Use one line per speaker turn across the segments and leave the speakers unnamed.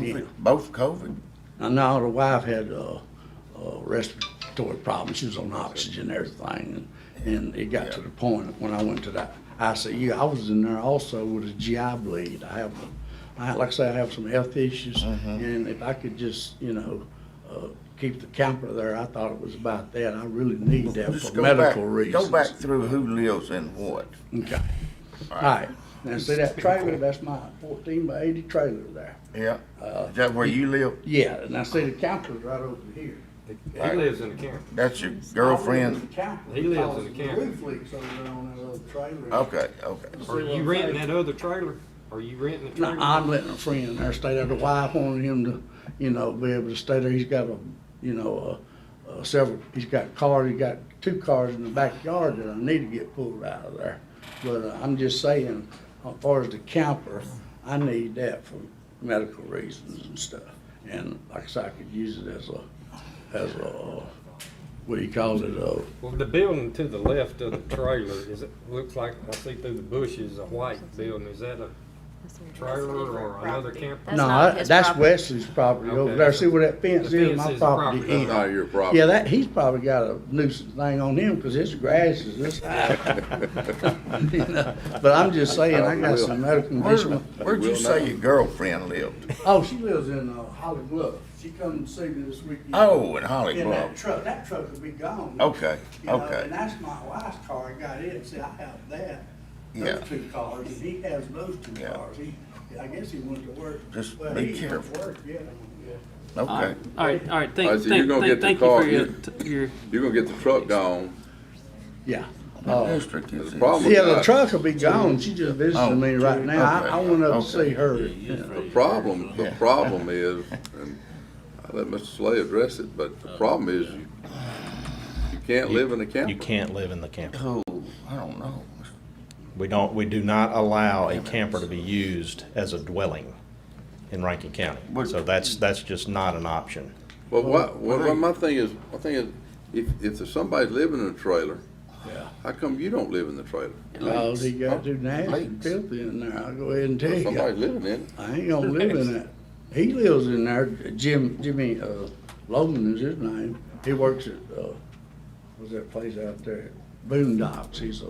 Yeah.
Both COVID?
I know the wife had uh, uh, respiratory problems. She was on oxygen and everything. And, and it got to the point when I went to the ICU, I was in there also with a GI bleed. I have, I, like I say, I have some health issues.
Mm-hmm.
And if I could just, you know, uh, keep the camper there, I thought it was about that. I really need that
Just
for
go back-
medical reasons.
Go back through who lives in what.
Okay. All right. Now, see that trailer? That's my 14 by 80 trailer there.
Yeah.
Uh,
Is that where you live?
Yeah, and I see the camper's right over here.
He lives in the camp.
That's your
I live in
girlfriend?
the camper.
He lives in the
Because
camper.
Roof leaks over there on that little trailer.
Okay, okay.
Are you renting that other trailer? Are you renting the
No,
trailer?
I'm letting a friend there stay there. The wife wanted him to, you know, be able to stay there. He's got a, you know, uh, uh, several, he's got cars, he got two cars in the backyard that I need to get pulled out of there. But uh, I'm just saying, as far as the camper, I need that for medical reasons and stuff. And like I said, I could use it as a, as a, uh, what do you call it, uh,
Well, the building to the left of the trailer, is it, looks like, I see through the bushes, a white building. Is that a, Trailer or another camper?
That's
No,
not
I-
his
that's
property.
Wesley's property over
Okay.
there. See where that fence
The
is,
fence
my
is the
property
property.
is.
That's not
your property.
Yeah, that, he's probably got a nuisance thing on him, cause his grass is this high. You know, But I'm just saying, I got some medical
Where,
condition.
where'd you say your girlfriend lived?
Oh, she lives in uh, Holly Bluff. She come to see me this weekend.
Oh, in Holly
In that
Grove.
truck, that truck would be gone.
Okay,
You know,
okay.
And that's my wife's car, I got it, see, I have that,
Yeah.
those two cars, and he has those two
Yeah.
cars, he, I guess he went to work.
Just
Well,
be
he went to
careful.
work, Yeah.
All
Okay.
right, all right, all right, thank,
Alright, so you're
thank,
gonna
thank,
get the
thank you for
car-
your,
you-
t- your,
You're gonna get the truck gone.
Yeah. Oh.
What district is
the
this?
problem-
Yeah, the truck will be gone, she just
Oh,
visited me right now, I, I
okay,
went up
okay.
to see her.
The problem, the
Yeah.
problem is, and I let Mr. Slay address it, but the problem is you, you can't live in a camper.
You can't live in the camper.
Oh, I don't know.
We don't, we do not allow a camper to be used as a dwelling in Rankin County.
But-
So that's, that's just not an option.
But what, what,
Well, they-
my thing is, my thing is, if, if there's somebody living in a trailer, how come you don't live in the trailer?
All he got to do now is
Leaks.
filthy in there, I'll go ahead and tell
Somebody's
you,
living in it.
I ain't gonna live in that. He lives in there, Jim, Jimmy, uh, Logan is his name, he works at, uh, what's that place out there, Boondocks, he's a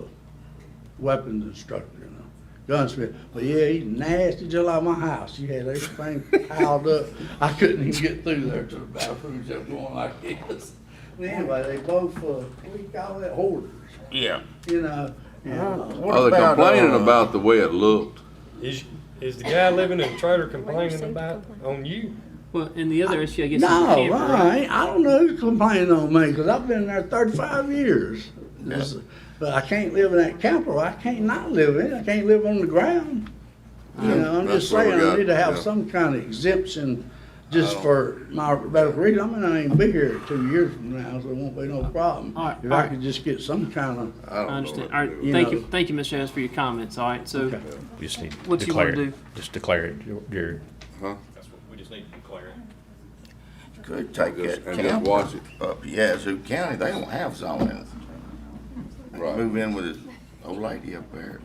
weapons instructor and a gunsmith, but yeah, he's nasty, just like my house, you had everything piled up, I couldn't even get through there to the bathroom, just going like this. But Anyway, they both, uh, what do you call that, hoarders,
Yeah.
you know, and, uh,
What
Are they
about,
complaining
uh,
about the way it looked?
is, is the guy living in the trailer complaining
Received
about,
complaint.
on you?
well, and the other issue, I guess, is the
No,
camper.
I ain't. I don't know who's complaining on me, because I've been there thirty-five years. This- But I can't live in that camper, I can't not live in it, I can't live on the ground. You know, I'm just
That's what we
saying, I
got,
need to have
yeah.
some kind of exemption just for my medical reason. I mean, I ain't be here two years from now, so it won't be no problem.
All right,
If
all
I
right.
could just get some kind of,
I don't know.
I understand,
what
all
to
right,
do.
You
thank
know.
you, thank you, Mr. Evans, for your comments, all right, so,
Okay.
You just need to
What you
declare
wanna
it.
do?
Just declare it, your- your,
We just need to declare it.
Could take
Just-
that
and just
camper
watch it,
up Yazoo County, they don't have zoning.
right.
Move in with this old lady up there.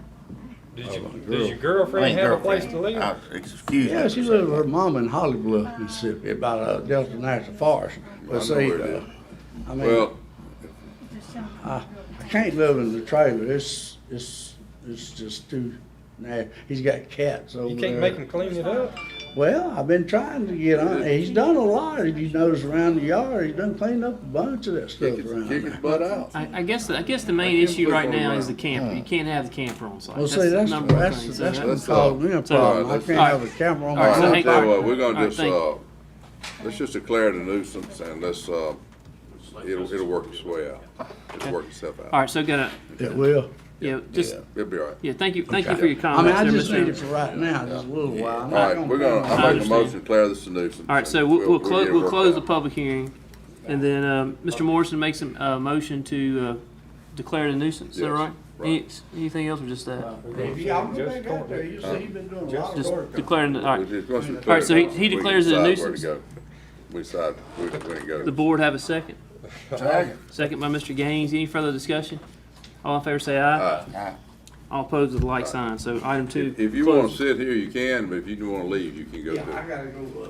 Oh,
Does your,
the girl.
does your girlfriend
Ain't
have a place to
girlfriend.
live?
Uh, Excuse me.
yeah, she lives with her mom in Holly Bluff, Mississippi, about uh, Delta National Forest. But
I know
see,
where it
uh,
is.
I mean.
Well,
I can't live in the trailer. It's it's it's just too. Nah, he's got cats over
You
there.
can't make him clean it up?
Well, I've been trying to get on. He's done a lot. If you notice around the yard, he's done cleaned up a bunch of that stuff
kick his,
around
kick
there.
his butt out.
I, I guess, I guess the main
can't
issue
put
right
it on
now
the
is the
ground.
camper, you can't have the camper on site.
Well, see, that's
number one
that's
thing.
that's,
So that-
what
that's
caused me a
so-
problem. I
alright,
can't
let's-
have a camera on
All right,
my
All
so
own
right, I
hey-
tell you what,
property.
we're
All
gonna
right,
just,
thank you.
uh, let's just declare it a nuisance and let's, uh, it'll, it'll work its way out. It'll work itself
All
out.
right, so gotta,
It will.
yeah, just,
It'll be all right.
yeah, thank you, thank you
Okay.
for your
I mean,
comments.
I
there,
just
Mr.
need it
Evans.
for right now, just a little while.
All
I'm not
right, we're gonna,
plan on-
I make a
understand.
motion to declare this a nuisance.
All right, so
and
we'll, we'll
get it
close, we'll
worked
close
out.
the public hearing, and then, um, Mr. Morrison makes a, a motion to, uh, declare it a nuisance, is that
Yes,
right?
right.
Any- Anything else or just that?
Yeah, I'll go back out there. You see, he's been doing a lot of
Just
work.
declaring, all
We're
right.
just gonna declare
All right, so he- he
We can
declares it a
decide where to
nuisance.
go. We decide where, where to go.
The board have a second.
Tag.
Second by Mr. Gaines. Any further discussion? All in favor, say aye.
Aye.
Aye.
All opposed with a like sign. So item two.
If you wanna
closed.
sit here, you can, but if you wanna leave, you can go too.
gotta go, uh,